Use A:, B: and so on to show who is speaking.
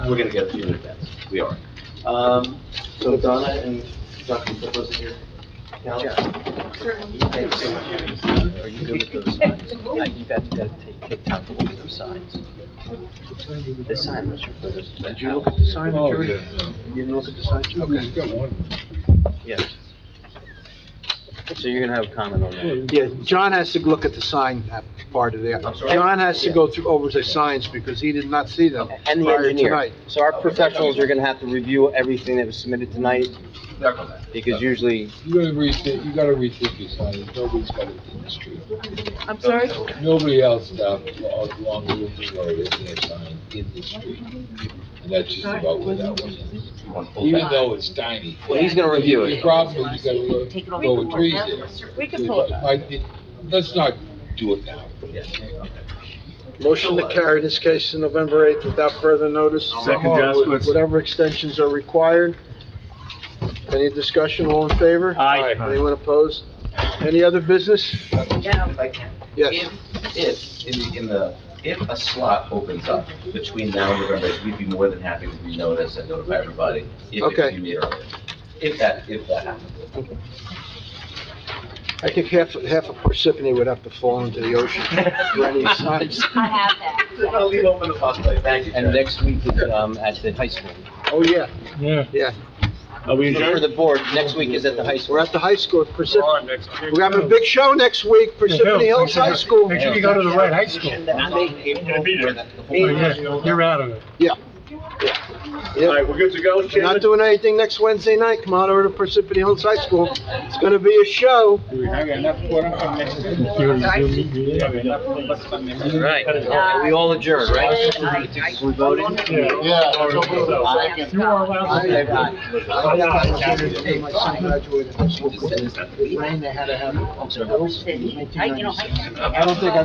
A: We're gonna get a few minutes, we are. Um, so Donna and Dr. Flippo's here. Now, thank you so much.
B: Are you good with those signs? Yeah, you got to, got to take, take time to look at those signs. This sign was your brother's.
A: Did you look at the sign,
C: Oh,
A: George?
C: yeah.
A: You didn't look at the sign, too?
C: Okay, got one.
B: Yes. So you're gonna have a comment on that?
D: Yeah, John has to look at the sign uh, part of there.
A: I'm sorry?
D: John has to go through over the signs because he did not see them
B: And the
D: prior to
B: engineer.
D: tonight.
B: So our professionals are gonna have to review everything that was submitted tonight, because usually,
C: You gotta rethink, you gotta rethink your sign, nobody's got it in the street.
E: I'm sorry?
C: Nobody else down along the Wilton Road is their sign in the street. And that's just about where that one is. Even though it's tiny.
B: well, he's gonna review
C: The
B: it.
C: problem is you gotta go with trees in.
E: We can pull it up.
C: it. Let's not do it now.
D: Motion to carry this case to November 8th without further notice.
F: Second, Jaskowitz.
D: Whatever extensions are required. Any discussion, all in favor?
F: Aye.
D: Anyone opposed? Any other business?
A: If I can.
D: Yes.
A: If, if, in the, in the, if a slot opens up between now and November, eighth, we'd be more than happy to renotice and notify everybody if it
D: Okay.
A: can be made earlier. If that, if that happens.
D: I think half, half of Parsippany would have to fall into the ocean for any signs.
E: I have that.
A: I'll leave open the possibility, thank you.
B: And
A: Chair.
B: next week, um, at the high school.
D: Oh, yeah,
C: Yeah.
D: yeah.
F: Are we
B: For
F: adjourned?
B: the board, next week is at the high school.
D: We're at the high school at Parsippany.
F: All right, next.
D: We're having a big show next week, Parsippany Hills High School.
G: Make sure you go to the right high school. Oh,
F: Gonna be there.
G: Yeah, You're out of it.
F: All right, we're good to go,
D: We're not
F: Chairman?
D: doing anything next Wednesday night, come on over to Parsippany Hills High School. It's gonna be a show.
C: I got enough for them next week.
G: You- you- you-
B: Right, we all adjourn, right? We voted?
C: Yeah.
G: You are allowed
D: I-
G: to.
D: I got a chance to take my son graduated high school. Rain, they had to have it.
B: I'm sorry.
D: I don't think I